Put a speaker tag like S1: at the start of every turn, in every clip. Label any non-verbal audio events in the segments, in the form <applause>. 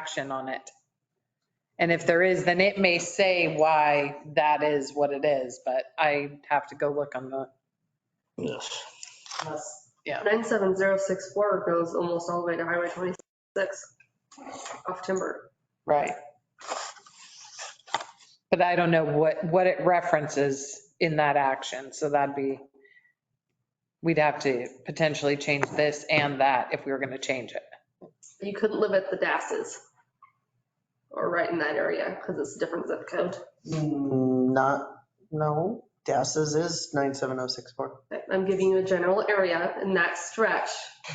S1: action on it. And if there is, then it may say why that is what it is, but I have to go look on the,
S2: Yes.
S1: yeah.
S3: 97064 goes almost all the way to Highway 26 off Timber.
S1: Right. But I don't know what, what it references in that action, so that'd be, we'd have to potentially change this and that if we were going to change it.
S3: You couldn't live at the Dasses or right in that area because it's a different zip code.
S2: Mm, Not, no, Das's is 97064.
S3: I'm giving you a general area in that stretch.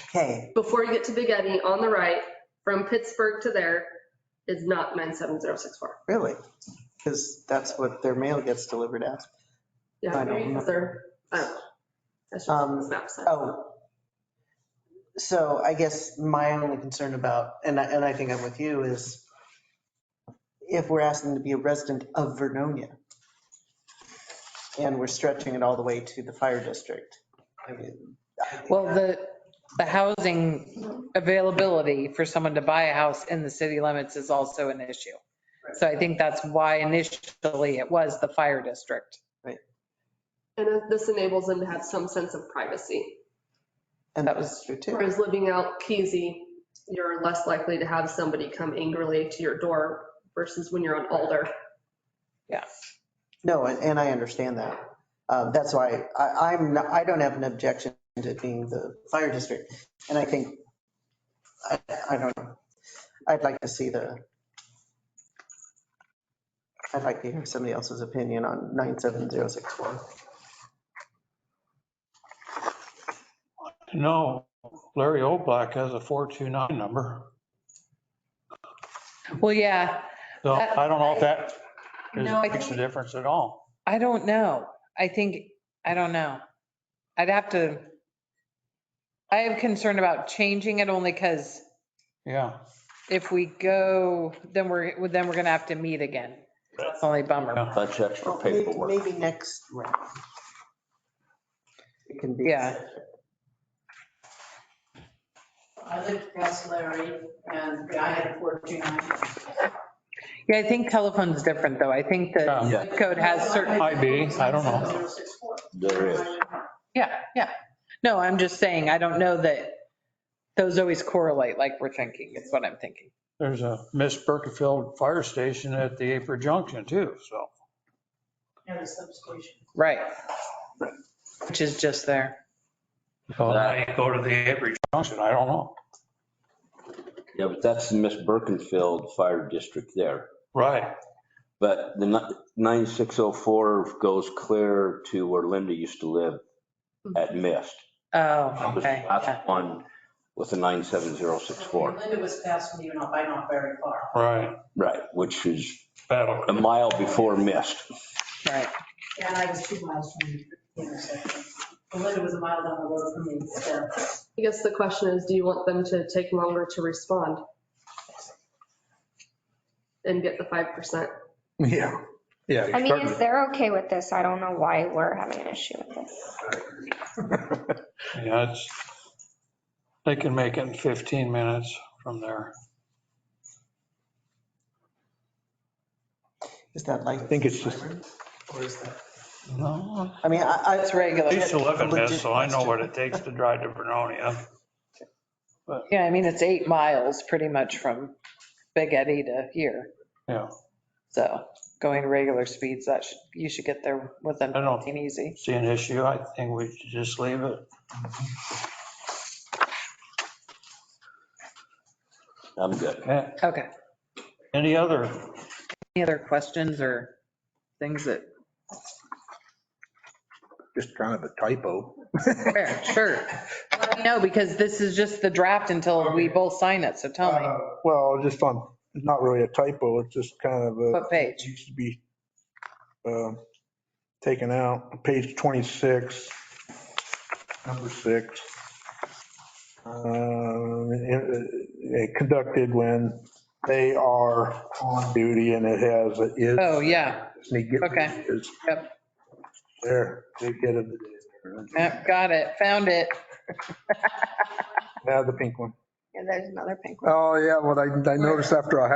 S2: Okay,
S3: Before you get to Big Eddy on the right, from Pittsburgh to there is not 97064.
S2: really? Because that's what their mail gets delivered as.
S3: Yeah,
S2: I don't know.
S3: because they're, I don't know. That's just
S2: Um,
S3: what this map said.
S2: Oh. So I guess my only concern about, and I, and I think I'm with you, is if we're asking to be a resident of Vernonia and we're stretching it all the way to the fire district. I mean, I-
S1: Well, the, the housing availability for someone to buy a house in the city limits is also an issue. So I think that's why initially it was the fire district.
S3: And uh, this enables them to have some sense of privacy.
S2: And that was true too.
S3: Whereas living out Keezy, you're less likely to have somebody come angrily to your door versus when you're on Alder.
S2: No, and, and I understand that. Uh, That's why I, I'm, not- I don't have an objection to it being the fire district. And I think, I, I don't know. I'd like to see the, I'd like to hear somebody else's opinion on 97061.
S4: No, Larry Oldblack has a 429 number.
S1: Well, yeah,
S4: So I don't know if that is-
S1: No, I
S4: makes a
S1: think-
S4: difference at all.
S1: I don't know. I think, I don't know. I'd have to, I have concern about changing it only because
S4: Yeah.
S1: if we go, then we're, then we're going to have to meet again. That's the only bummer.
S4: Yeah.
S5: That's extra
S2: Well, may-
S5: paperwork.
S2: Maybe next round. It can be.
S1: Yeah.
S6: I lived past Larry and I had a 429.
S1: Yeah, I think telephone's different though. I think the
S4: Yeah.
S5: Yeah,
S1: zip code has certain,
S4: Might be, I don't know.
S6: 064.
S5: there is.
S1: yeah, yeah. No, I'm just saying, I don't know that those always correlate like we're thinking, is what I'm thinking.
S4: There's a Miss Burkefield Fire Station at the Apron Junction too, so.
S6: Near the substation.
S1: Right. Which is just there.
S4: So now you go to the Apron Junction, I don't know.
S5: Yeah, but that's the Miss Birkenfield Fire District there.
S4: Right,
S5: But the ni- 9604 goes clear to where Linda used to live at Mist.
S1: Oh,
S5: That was the
S1: Hmm. okay. yeah.
S5: last one with the 97064.
S6: Linda was past me, not by not very far.
S4: right.
S5: Right, which is
S4: Battle.
S5: a mile before Mist.
S1: Right.
S6: And I was two miles from the intersection. Linda was a mile down the road from me. so.
S3: I guess the question is, do you want them to take longer to respond? And get the 5%?
S4: <laughs> Yeah, yeah.
S7: I mean, if they're okay with this, I don't know why we're having an issue with this.
S4: Yeah, it's, they can make it in 15 minutes from there.
S2: Is that like? I
S4: think it's just-
S2: Or is that,
S4: No,
S2: I mean, I, I.
S1: It's regular.
S4: I used to live in Mist, so I know what it takes to drive to Vernonia.
S1: Yeah, I mean, it's eight miles pretty much from Big Eddy to here.
S4: Yeah.
S1: So going regular speeds, that should, you should get there within
S4: I know.
S1: 15 easy.
S4: see an issue, I think we should just leave it.
S5: I'm good.
S4: Okay.
S1: Okay.
S4: Any other?
S1: Any other questions or things that,
S8: just kind of a typo.
S1: Fair, sure. Let me know because this is just the draft until we both sign it. So tell me
S4: Uh-huh.
S8: Uh, Well, just on, not really a typo, it's just kind of a.
S1: what
S8: it
S1: page.
S8: Needs to be um, taken out, page 26, number six. Um, it- it Conducted when they are on duty and it has, it is.
S1: Oh, yeah.
S8: They get-
S1: Okay.
S8: is-
S1: Yep.
S8: There, they get it.
S1: Yep, Got it. Found it.
S8: Now the pink one.
S9: Yeah, there's another pink one.
S8: Oh, yeah, what I, I noticed after I had